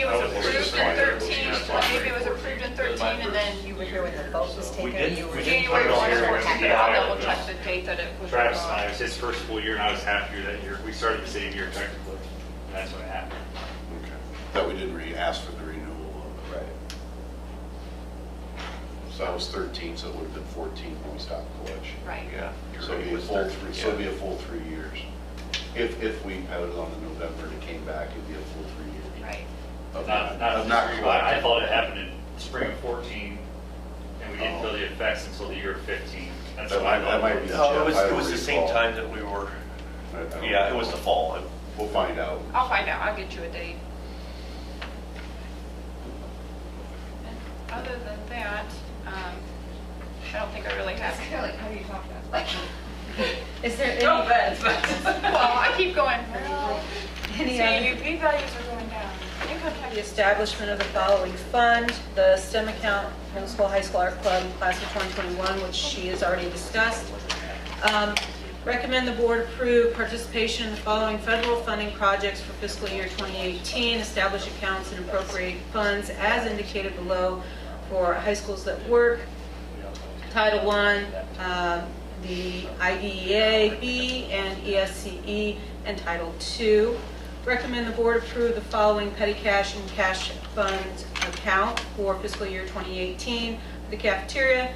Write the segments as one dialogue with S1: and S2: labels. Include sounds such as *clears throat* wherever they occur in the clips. S1: it was approved in 13, maybe it was approved in 13 and then
S2: You were here when the vote was
S3: We
S2: taken.
S3: did-
S2: you were-
S3: we did put
S1: January
S3: it on
S1: 1
S3: here
S1: or
S3: when we
S1: something.
S3: got
S1: I'll
S3: hired,
S1: double check
S3: no.
S1: the date that it was.
S3: Travis and
S1: wrong.
S3: I, it was his first full year, and I was half year that year. We started the same year technically, and that's what happened.
S4: Okay. That we did re-ask for the renewal of. Right. So that was 13, so it would have been 14 when we stopped collection.
S1: Right.
S5: Yeah.
S4: So it'd be a full three, so it'd be a full three years. If, if we voted on the November and it came back, it'd be a full three years.
S1: Right.
S4: Of
S3: Not, not,
S4: of not
S3: I I
S4: collecting.
S3: thought it happened in spring of 14, and we didn't
S4: Oh.
S3: feel the effects until the year of 15. That's
S4: That
S3: what I
S4: might-
S3: thought.
S4: that might be-
S5: No, it was,
S4: I
S5: it was the same
S4: recall.
S5: time that we were,
S4: I- I don't
S5: yeah, it
S4: know.
S5: was the fall.
S4: We'll find out.
S1: I'll find out, I'll get you a date. And Other than that, um, I don't think I really have.
S2: It's kind of like, how do you talk about? Like, Is there
S1: No
S2: any,
S1: offense, but, well, I keep going, well,
S2: any
S1: see,
S2: other?
S1: UP values are going down. Income
S2: The
S1: tax,
S2: establishment of the following fund, the STEM account, middle school, high school art club, class of 2021, which she has already discussed. Um, Recommend the board approve participation in the following federal funding projects for fiscal year 2018. Establish accounts and appropriate funds as indicated below for high schools that work. Title I, um, the IDEA B and E ESCE, and Title II. Recommend the board approve the following petty cash and cash fund account for fiscal year 2018. for The cafeteria,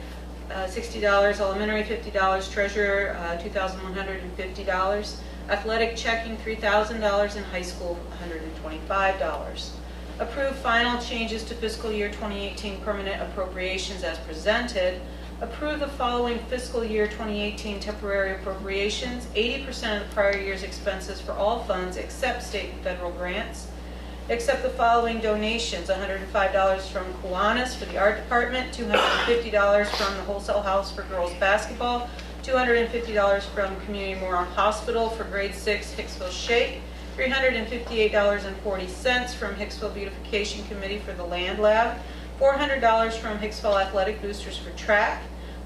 S2: uh, $60, elementary $50, treasurer uh, $2,150, athletic checking $3,000, and high school $125. Approve final changes to fiscal year 2018 permanent appropriations as presented. Approve the following fiscal year 2018 temporary appropriations, 80% of the prior year's expenses for all funds except state and federal grants. Accept the following donations, $105 from Kiwanis for the art department, $250 from the Wholesale House for girls basketball, $250 from Community Moron Hospital for grade six Hicksville Shake, $358.40 from Hicksville Beautification Committee for the land lab, $400 from Hicksville Athletic Boosters for track,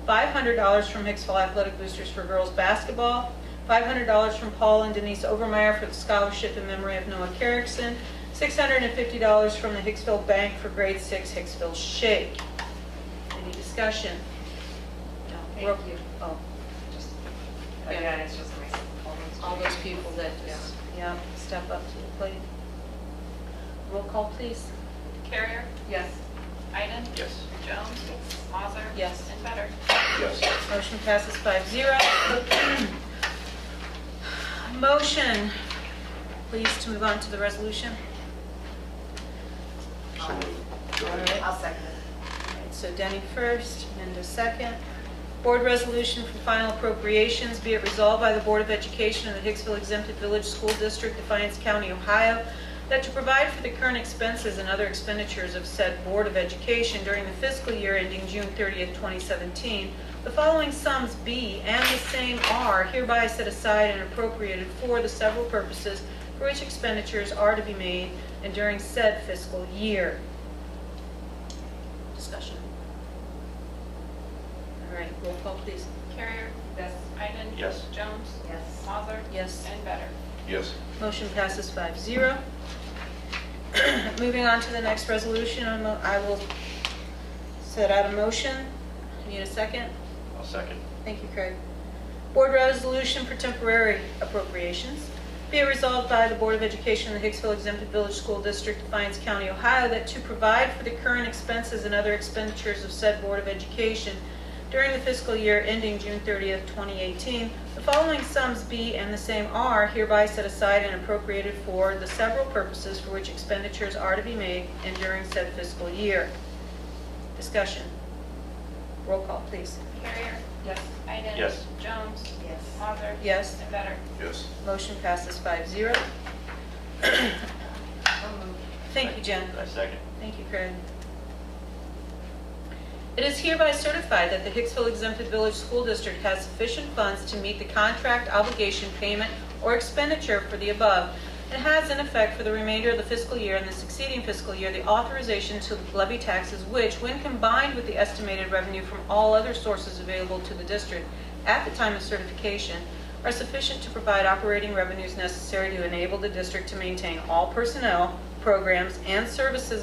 S2: $500 from Hicksville Athletic Boosters for girls basketball, $500 from Paul and Denise Overmeyer for the scholarship in memory of Noah Carrickson, $650 from the Hicksville Bank for grade six Hicksville Shake. Any discussion? No.
S6: Thank
S2: Roll-
S6: you. Oh,
S2: Oh,
S6: Again, it's just amazing.
S2: all those people that just, yeah, step up to the plate. Roll call, please.
S1: Carrier,
S6: Yes.
S1: Iden,
S5: Yes.
S1: Jones, Mazer.
S2: Yes.
S1: And Better.
S4: Yes.
S2: Motion passes five zero. *clears throat* Motion, please, to move on to the resolution.
S4: So
S2: All right.
S6: I'll second it.
S2: Alright, So Denny first, Mendo second. Board resolution for final appropriations, be it resolved by the Board of Education of the Hicksville Exempted Village School District, Defiance County, Ohio, that to provide for the current expenses and other expenditures of said Board of Education during the fiscal year ending June 30th, 2017, the following sums be and the same are hereby set aside and appropriated for the several purposes for which expenditures are to be made and during said fiscal year. Discussion. All right, roll call, please.
S1: Carrier,
S6: Yes.
S1: Iden.
S5: Yes.
S1: Jones,
S6: Yes.
S1: Mazer.
S2: Yes.
S1: And Better.
S4: Yes.
S2: Motion passes five zero. *clears throat* Moving on to the next resolution, I'm- I will set out a motion. Need a second?
S5: I'll second.
S2: Thank you, Craig. Board resolution for temporary appropriations. Be it resolved by the Board of Education of the Hicksville Exempted Village School District, Defiance County, Ohio, that to provide for the current expenses and other expenditures of said Board of Education during the fiscal year ending June 30th, 2018, the following sums be and the same are hereby set aside and appropriated for the several purposes for which expenditures are to be made and during said fiscal year. Discussion. Roll call, please.
S1: Carrier,
S6: Yes.
S1: Iden.
S5: Yes.
S1: Jones,
S6: Yes.
S1: Mazer.
S2: Yes.
S1: And Better.
S4: Yes.
S2: Motion passes five zero.
S6: I'll move.
S2: Thank you, Jen.
S5: I second.
S2: Thank you, Craig. It is hereby certified that the Hicksville Exempted Village School District has sufficient funds to meet the contract obligation payment or expenditure for the above, and has in effect for the remainder of the fiscal year and the succeeding fiscal year the authorization to levy taxes which, when combined with the estimated revenue from all other sources available to the district at the time of certification, are sufficient to provide operating revenues necessary to enable the district to maintain all personnel, programs and services